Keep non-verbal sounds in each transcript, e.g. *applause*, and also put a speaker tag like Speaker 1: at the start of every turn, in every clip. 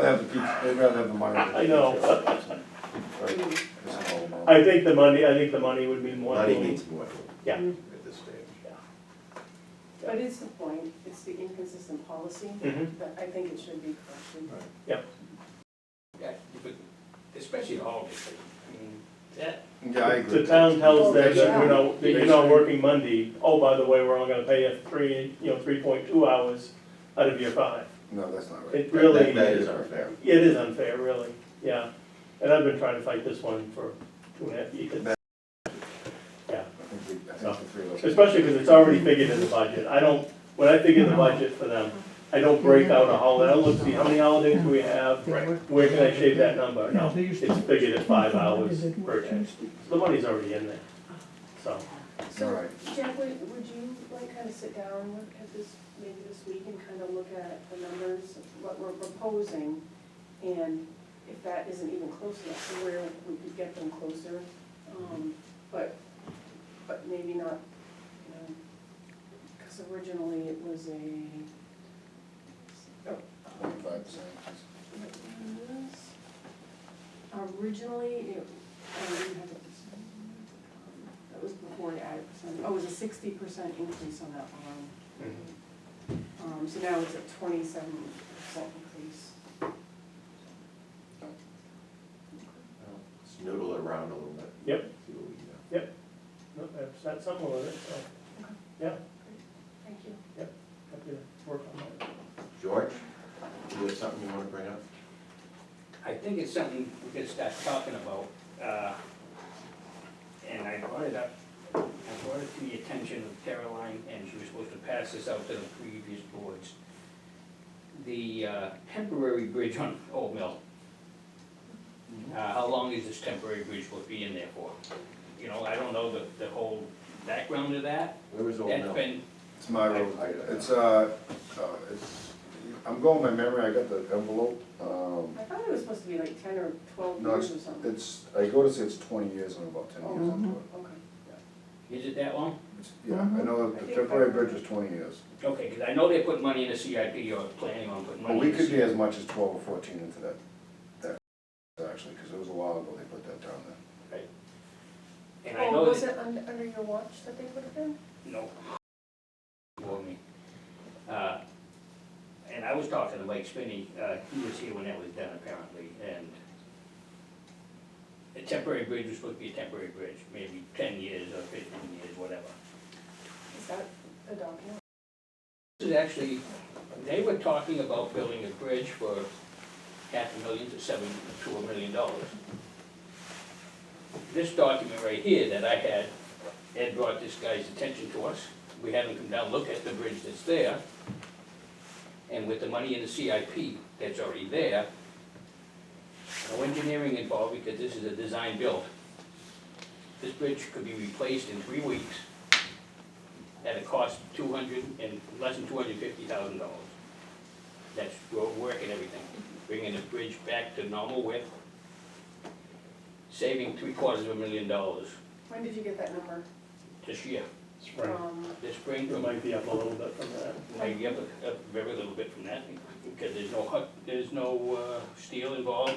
Speaker 1: pizza, they'd rather have the money. than the
Speaker 2: I know.
Speaker 1: pizza. Right, it's all about-
Speaker 2: *laughs* I think the money, I think the money would be more
Speaker 1: Money
Speaker 2: than,
Speaker 1: means more.
Speaker 2: Yeah.
Speaker 1: At this stage.
Speaker 3: But it's the point, it's the inconsistent policy,
Speaker 2: Mhm.
Speaker 3: that I think it should be corrected.
Speaker 4: Yeah, but especially the holidays, I mean, that,
Speaker 1: Yeah, I agree.
Speaker 2: the town tells them
Speaker 1: They should-
Speaker 2: that we're not, that you're not working Monday, oh, by the way, we're only gonna pay you three, you know, three point two hours out of your five.
Speaker 1: No, that's not right.
Speaker 2: It
Speaker 1: That-
Speaker 2: really
Speaker 1: that- That is
Speaker 2: is-
Speaker 1: unfair.
Speaker 2: It is unfair, really, yeah, and I've been trying to fight this one for two and a half years.
Speaker 1: I think we, I
Speaker 2: No.
Speaker 1: think the three of us.
Speaker 2: Especially because it's already figured in the budget. I don't, when I figure the budget for them, I don't break out a holiday, I don't look, see how many holidays do we have? Where can I shave that number? No, it's figured at five hours per day. The money's already in there, so.
Speaker 3: So,
Speaker 1: Alright.
Speaker 3: Jack, would, would you like kind of sit down with- at this, maybe this week and kind of look at the numbers, what we're proposing? And if that isn't even close enough to where we could get them closer, um, but, but maybe not, you know, because originally it was a, oh, um,
Speaker 1: Twenty-five percent.
Speaker 3: what was- Originally, it, I don't even have it. That was before the added percent, oh, it was a sixty percent increase on that one.
Speaker 1: Mm-hmm.
Speaker 3: Um, so now it's a twenty-seven percent increase.
Speaker 5: Just noodle it around a little bit.
Speaker 2: Yep.
Speaker 5: See what we can do.
Speaker 2: No, I've sat somewhere with it, so
Speaker 3: Thank you.
Speaker 2: happy to work on that.
Speaker 5: George, you have something you wanna bring up?
Speaker 4: I think it's something we could start talking about. uh, And I brought it up, I brought it to the attention of Caroline, and she was supposed to pass this out to the previous boards. The uh, temporary bridge on Old Mill. Uh, How long is this temporary bridge supposed to be in there for? You know, I don't know the, the whole background of that.
Speaker 5: Where is Old
Speaker 4: That's
Speaker 5: Mill?
Speaker 4: been,
Speaker 1: It's my road, it's, uh, uh, it's, I'm going by memory, I got the envelope, um,
Speaker 3: I thought it was supposed to be like ten or twelve
Speaker 1: No,
Speaker 3: years or something.
Speaker 1: It's, I go to say it's twenty years, and I'm about ten years into it.
Speaker 3: Okay.
Speaker 4: is it that long?
Speaker 1: It's- Yeah, I know that the temporary bridge is twenty years,
Speaker 4: Okay, because I know they put money in the CIP or planning on putting
Speaker 1: but
Speaker 4: money
Speaker 1: we
Speaker 4: in the
Speaker 1: could be
Speaker 4: CIP.
Speaker 1: as much as twelve or fourteen into that, that, actually, because it was a while ago they put that down there.
Speaker 4: And I
Speaker 3: Oh,
Speaker 4: know
Speaker 3: was
Speaker 4: that,
Speaker 3: it under, under your watch that they put it in?
Speaker 4: no. For me. Uh, And I was talking to Mike Spinney, uh, he was here when that was done apparently, and a temporary bridge was supposed to be a temporary bridge, maybe ten years or fifteen years, whatever.
Speaker 3: Is that a document?
Speaker 4: This is actually, they were talking about building a bridge for half a million to seven, to a million dollars. This document right here that I had, Ed brought this guy's attention to us. We had him come down, look at the bridge that's there. And with the money in the CIP that's already there, no engineering involved because this is a design build. This bridge could be replaced in three weeks at a cost of two hundred and, less than two hundred and fifty thousand dollars. That's road work and everything, bringing the bridge back to normal width, saving three quarters of a million dollars
Speaker 3: When did you get that number?
Speaker 4: this year,
Speaker 2: Spring,
Speaker 3: Um,
Speaker 4: this spring
Speaker 2: it
Speaker 4: from
Speaker 2: might be up a little bit from that.
Speaker 4: Maybe up a, a very little bit from that, because there's no hut, there's no, uh, steel involved,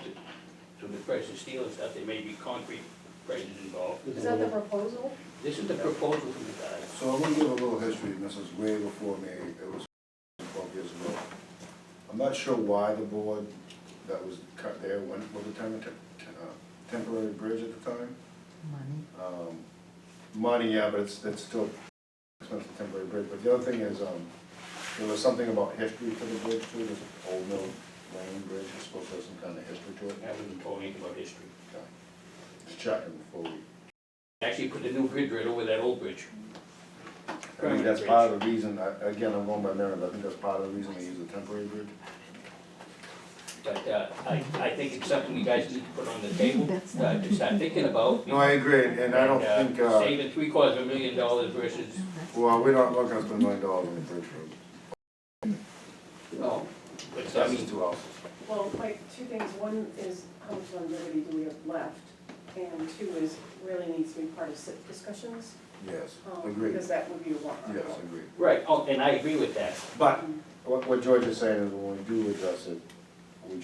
Speaker 4: so the price of steel and stuff, there may be concrete prices involved.
Speaker 3: is that the proposal?
Speaker 4: This is the proposal from the guy.
Speaker 1: So I'm gonna give a little history, and this is way before me, it was twelve years ago. I'm not sure why the board that was cut there went with the tem- te- uh, temporary bridge at the time. Um, Money, yeah, but it's, it's still expensive temporary bridge, but the other thing is, um, there was something about history to the bridge too, this old mill lane bridge, it's supposed to have some kind of history to it.
Speaker 4: I haven't told anything about history.
Speaker 1: Just checking before we.
Speaker 4: Actually put the new bridge right over that old bridge.
Speaker 1: I think that's part of the reason, I- again, I'm going by memory, but I think that's part of the reason they use a temporary bridge.
Speaker 4: But uh, I, I think it's something you guys need to put on the table, uh, to start thinking about.
Speaker 1: No, I agree, and I don't
Speaker 4: And,
Speaker 1: think,
Speaker 4: uh,
Speaker 1: uh,
Speaker 4: Saving three quarters of a million dollars versus,
Speaker 1: well, we're not looking to spend a million dollars on the bridge road.
Speaker 4: no, but I
Speaker 1: That's just
Speaker 4: mean,
Speaker 1: two houses.
Speaker 3: Well, like, two things, one is how much longevity do we have left? And two is really needs to be part of SIP discussions,
Speaker 1: Yes,
Speaker 3: um,
Speaker 1: agreed. Yes,
Speaker 3: because that would be a warrant article.
Speaker 1: agreed.
Speaker 4: right, oh, and I agree with that.
Speaker 1: But what, what George is saying is when we do address it,